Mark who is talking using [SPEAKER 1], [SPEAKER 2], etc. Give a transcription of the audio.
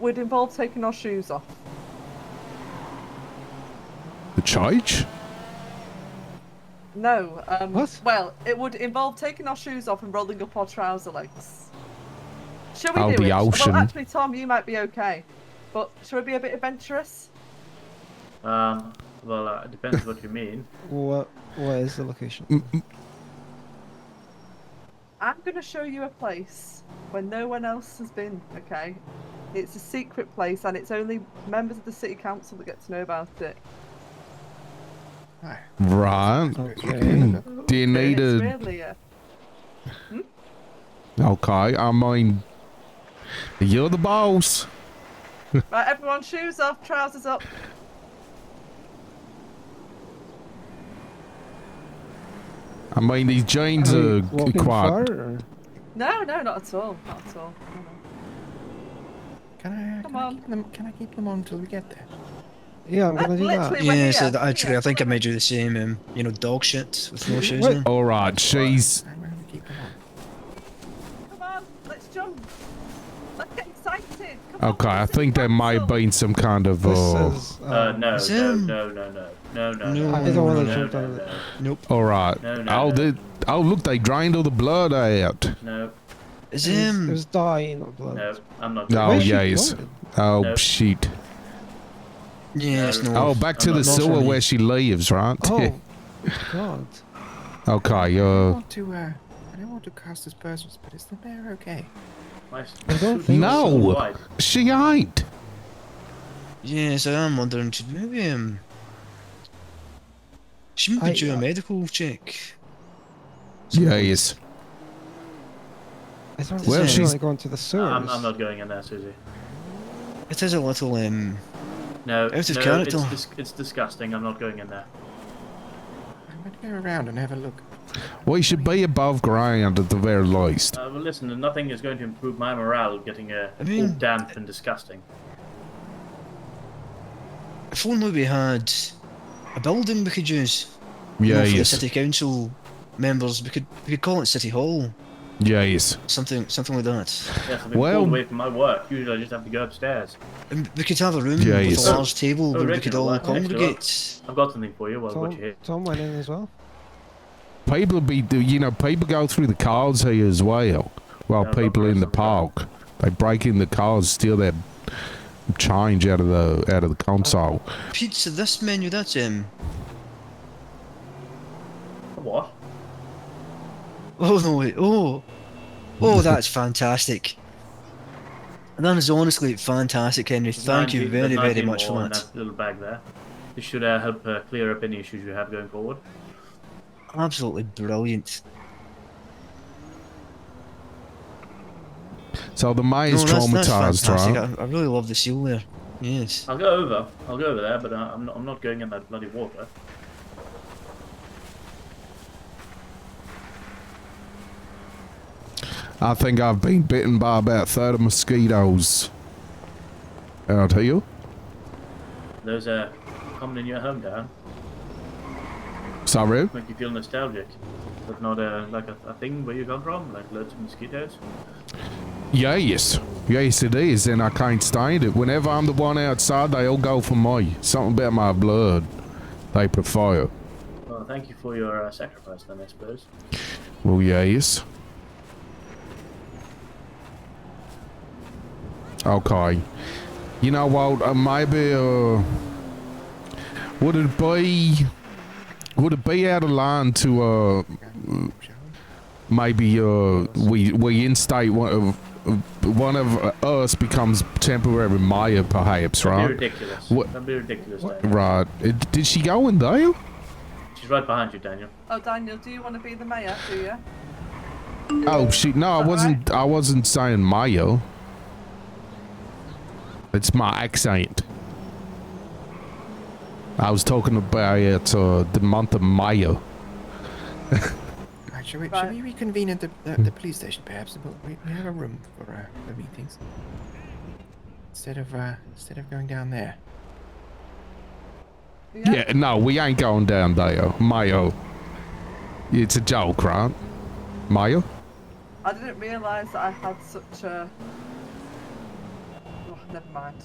[SPEAKER 1] would involve taking our shoes off.
[SPEAKER 2] The charge?
[SPEAKER 1] No. Um,
[SPEAKER 2] What?
[SPEAKER 1] Well, it would involve taking our shoes off and rolling up our trouser legs. Shall we
[SPEAKER 2] I'll
[SPEAKER 1] do
[SPEAKER 2] be
[SPEAKER 1] it?
[SPEAKER 2] ocean.
[SPEAKER 1] Well, actually, Tom, you might be okay. But shall we be a bit adventurous?
[SPEAKER 3] Um, well, uh, it depends what you mean.
[SPEAKER 4] What what is the location?
[SPEAKER 1] I'm going to show you a place where no one else has been, okay? It's a secret place and it's only members of the city council that get to know about it.
[SPEAKER 2] Right.
[SPEAKER 4] Okay.
[SPEAKER 2] Do you need
[SPEAKER 1] It's
[SPEAKER 2] a.
[SPEAKER 1] really a...
[SPEAKER 2] Okay, I mean. You're the boss.
[SPEAKER 1] Right, everyone, shoes off, trousers up.
[SPEAKER 2] I mean, these jeans
[SPEAKER 4] Are we
[SPEAKER 2] are,
[SPEAKER 4] walking
[SPEAKER 2] quite.
[SPEAKER 4] far, or-
[SPEAKER 1] No, no, not at all. Not at all. No, no.
[SPEAKER 5] Can I,
[SPEAKER 1] Come
[SPEAKER 5] can, I
[SPEAKER 1] on.
[SPEAKER 5] keep them, can I keep them on till we get there?
[SPEAKER 4] Yeah, I'm gonna do that.
[SPEAKER 1] Literally, we're
[SPEAKER 6] Yeah, so
[SPEAKER 1] here.
[SPEAKER 6] th- actually,
[SPEAKER 1] Yeah.
[SPEAKER 6] I think I might do the same. Um, you know, dog shit with no shoes
[SPEAKER 4] Wait.
[SPEAKER 6] on.
[SPEAKER 2] Alright, she's.
[SPEAKER 5] I'm going to keep them on.
[SPEAKER 1] Come on, let's jump. Let's get excited. Come on,
[SPEAKER 2] Okay, I
[SPEAKER 1] let's
[SPEAKER 2] think there may have
[SPEAKER 1] jump.
[SPEAKER 2] been some kind of.
[SPEAKER 4] This
[SPEAKER 2] Uh,
[SPEAKER 4] is, uh,
[SPEAKER 3] Uh, no,
[SPEAKER 6] Is
[SPEAKER 3] no,
[SPEAKER 6] him?
[SPEAKER 3] no, no, no, no, no,
[SPEAKER 6] No.
[SPEAKER 3] no.
[SPEAKER 6] I
[SPEAKER 3] no,
[SPEAKER 6] don't wanna
[SPEAKER 3] no,
[SPEAKER 4] jump
[SPEAKER 3] no,
[SPEAKER 4] on it.
[SPEAKER 6] Nope.
[SPEAKER 2] Alright.
[SPEAKER 3] No, no,
[SPEAKER 2] Oh,
[SPEAKER 3] no.
[SPEAKER 2] they, oh, look, they drained all the blood out.
[SPEAKER 3] No,
[SPEAKER 4] it was,
[SPEAKER 6] Is um,
[SPEAKER 4] it
[SPEAKER 6] him?
[SPEAKER 4] was dying of
[SPEAKER 3] no,
[SPEAKER 4] blood.
[SPEAKER 3] no, I'm not.
[SPEAKER 2] No.
[SPEAKER 4] Where
[SPEAKER 2] Oh,
[SPEAKER 4] is she
[SPEAKER 2] yes.
[SPEAKER 4] going?
[SPEAKER 2] Oh,
[SPEAKER 3] No.
[SPEAKER 2] shoot.
[SPEAKER 6] Yeah, it's no.
[SPEAKER 2] Oh, back to
[SPEAKER 3] I'm
[SPEAKER 2] the
[SPEAKER 3] not sure
[SPEAKER 2] sewer
[SPEAKER 6] he-
[SPEAKER 2] where she lives, right?
[SPEAKER 4] Oh, God.
[SPEAKER 2] okay,
[SPEAKER 5] I
[SPEAKER 2] uh.
[SPEAKER 5] want to, uh, I don't want to cast aspersions, but is the bear okay?
[SPEAKER 3] My
[SPEAKER 4] I don't
[SPEAKER 3] suit
[SPEAKER 4] think
[SPEAKER 3] is so
[SPEAKER 2] No.
[SPEAKER 3] wide.
[SPEAKER 2] She ain't.
[SPEAKER 6] Yes, I am wondering. Should maybe um, she might
[SPEAKER 4] I-
[SPEAKER 6] be
[SPEAKER 5] uh,
[SPEAKER 6] due a medical check.
[SPEAKER 2] Yes.
[SPEAKER 4] I thought
[SPEAKER 6] Well,
[SPEAKER 4] well, she's
[SPEAKER 2] she's-
[SPEAKER 4] like going to the sewers.
[SPEAKER 3] I'm, I'm not going in there, Susie.
[SPEAKER 6] It is a little um.
[SPEAKER 3] No,
[SPEAKER 6] Out of
[SPEAKER 3] no,
[SPEAKER 6] character.
[SPEAKER 3] It's, dis- it's disgusting. I'm not going in there.
[SPEAKER 5] I'm going to go around and have a look.
[SPEAKER 2] We should be above ground at the very least.
[SPEAKER 3] Uh, well, listen, nothing is going to improve my morale getting uh,
[SPEAKER 6] I mean-
[SPEAKER 3] all damp and disgusting.
[SPEAKER 6] If only we had a building we could use. you know,
[SPEAKER 2] Yeah,
[SPEAKER 6] for the
[SPEAKER 2] yes.
[SPEAKER 6] city council members, we could we could call it city hall,
[SPEAKER 2] Yeah, yes.
[SPEAKER 6] something something like that.
[SPEAKER 3] Yes, I've been
[SPEAKER 2] Well-
[SPEAKER 3] pulled away from my work. Usually I just have to go upstairs.
[SPEAKER 6] And we could have a room
[SPEAKER 2] Yeah,
[SPEAKER 6] with
[SPEAKER 2] yes.
[SPEAKER 6] a large table
[SPEAKER 3] Oh,
[SPEAKER 6] where we
[SPEAKER 3] Rick,
[SPEAKER 6] could
[SPEAKER 3] well,
[SPEAKER 6] all
[SPEAKER 3] actually, well-
[SPEAKER 6] congregate.
[SPEAKER 3] I've got something for you while
[SPEAKER 4] Tom,
[SPEAKER 3] what you here.
[SPEAKER 4] Tom went in as well.
[SPEAKER 2] People be, you know, people go through the cars here as well. While
[SPEAKER 3] Yeah,
[SPEAKER 2] people in the
[SPEAKER 3] sometimes.
[SPEAKER 2] park, they break in the cars, steal their change out of the out of the console.
[SPEAKER 6] Pizza, this menu, that's um.
[SPEAKER 3] What?
[SPEAKER 6] Oh no, wait, oh, oh, that's fantastic. And that is honestly fantastic, Henry. Thank you
[SPEAKER 3] Nineteen-
[SPEAKER 6] very, very
[SPEAKER 3] nineteen
[SPEAKER 6] much
[SPEAKER 3] more
[SPEAKER 6] for
[SPEAKER 3] in
[SPEAKER 6] that.
[SPEAKER 3] little bag there. This should uh, help uh, clear up any issues you have going forward.
[SPEAKER 6] Absolutely brilliant.
[SPEAKER 2] So the
[SPEAKER 6] No,
[SPEAKER 2] mayor's
[SPEAKER 6] that's, that's
[SPEAKER 2] traumatized,
[SPEAKER 6] fantastic.
[SPEAKER 2] right?
[SPEAKER 6] I, I really love the seal there. Yes.
[SPEAKER 3] I'll go over. I'll go over there, but uh, I'm, not, I'm not going in that bloody water.
[SPEAKER 2] I think I've been bitten by about thirty mosquitoes out here.
[SPEAKER 3] Those are common in your hometown.
[SPEAKER 2] Sorry.
[SPEAKER 3] Make you feel nostalgic. But not uh, like a, a thing where you come from, like loads of mosquitoes.
[SPEAKER 2] Yes. Yes, it is, and I can't stand it. Whenever I'm the one outside, they all go for me. Something about my blood. They prefer.
[SPEAKER 3] Well, thank you for your uh, sacrifice then, I suppose.
[SPEAKER 2] Well, yes. Okay. You know what? Uh, maybe, uh, would it be, would it be out of line to, uh,
[SPEAKER 5] Shall
[SPEAKER 2] maybe, uh, we, we instate one of, one of us becomes temporary mayor, perhaps,
[SPEAKER 3] That'd
[SPEAKER 2] right?
[SPEAKER 3] be ridiculous.
[SPEAKER 2] What-
[SPEAKER 3] That'd be ridiculous, Daniel.
[SPEAKER 2] Right. Uh, Did she go in there?
[SPEAKER 3] She's right behind you, Daniel.
[SPEAKER 1] Oh, Daniel, do you want to be the mayor? Do you?
[SPEAKER 2] Oh, she. No, I
[SPEAKER 1] Alright.
[SPEAKER 2] wasn't. I wasn't saying Mayo. It's my accent. I was talking about uh, the month of Mayo.
[SPEAKER 5] we- Right, shall, we,
[SPEAKER 1] Right.
[SPEAKER 5] shall we reconvene at the, the, the police station, perhaps? We'll- We, we have a room for uh, the meetings. Instead of, uh, instead of going down there.
[SPEAKER 1] Yeah.
[SPEAKER 2] Yeah. No, we ain't going down there. Mayo. It's a joke, right? Mayo.
[SPEAKER 1] I didn't realise that I had such a. Oh, Never mind.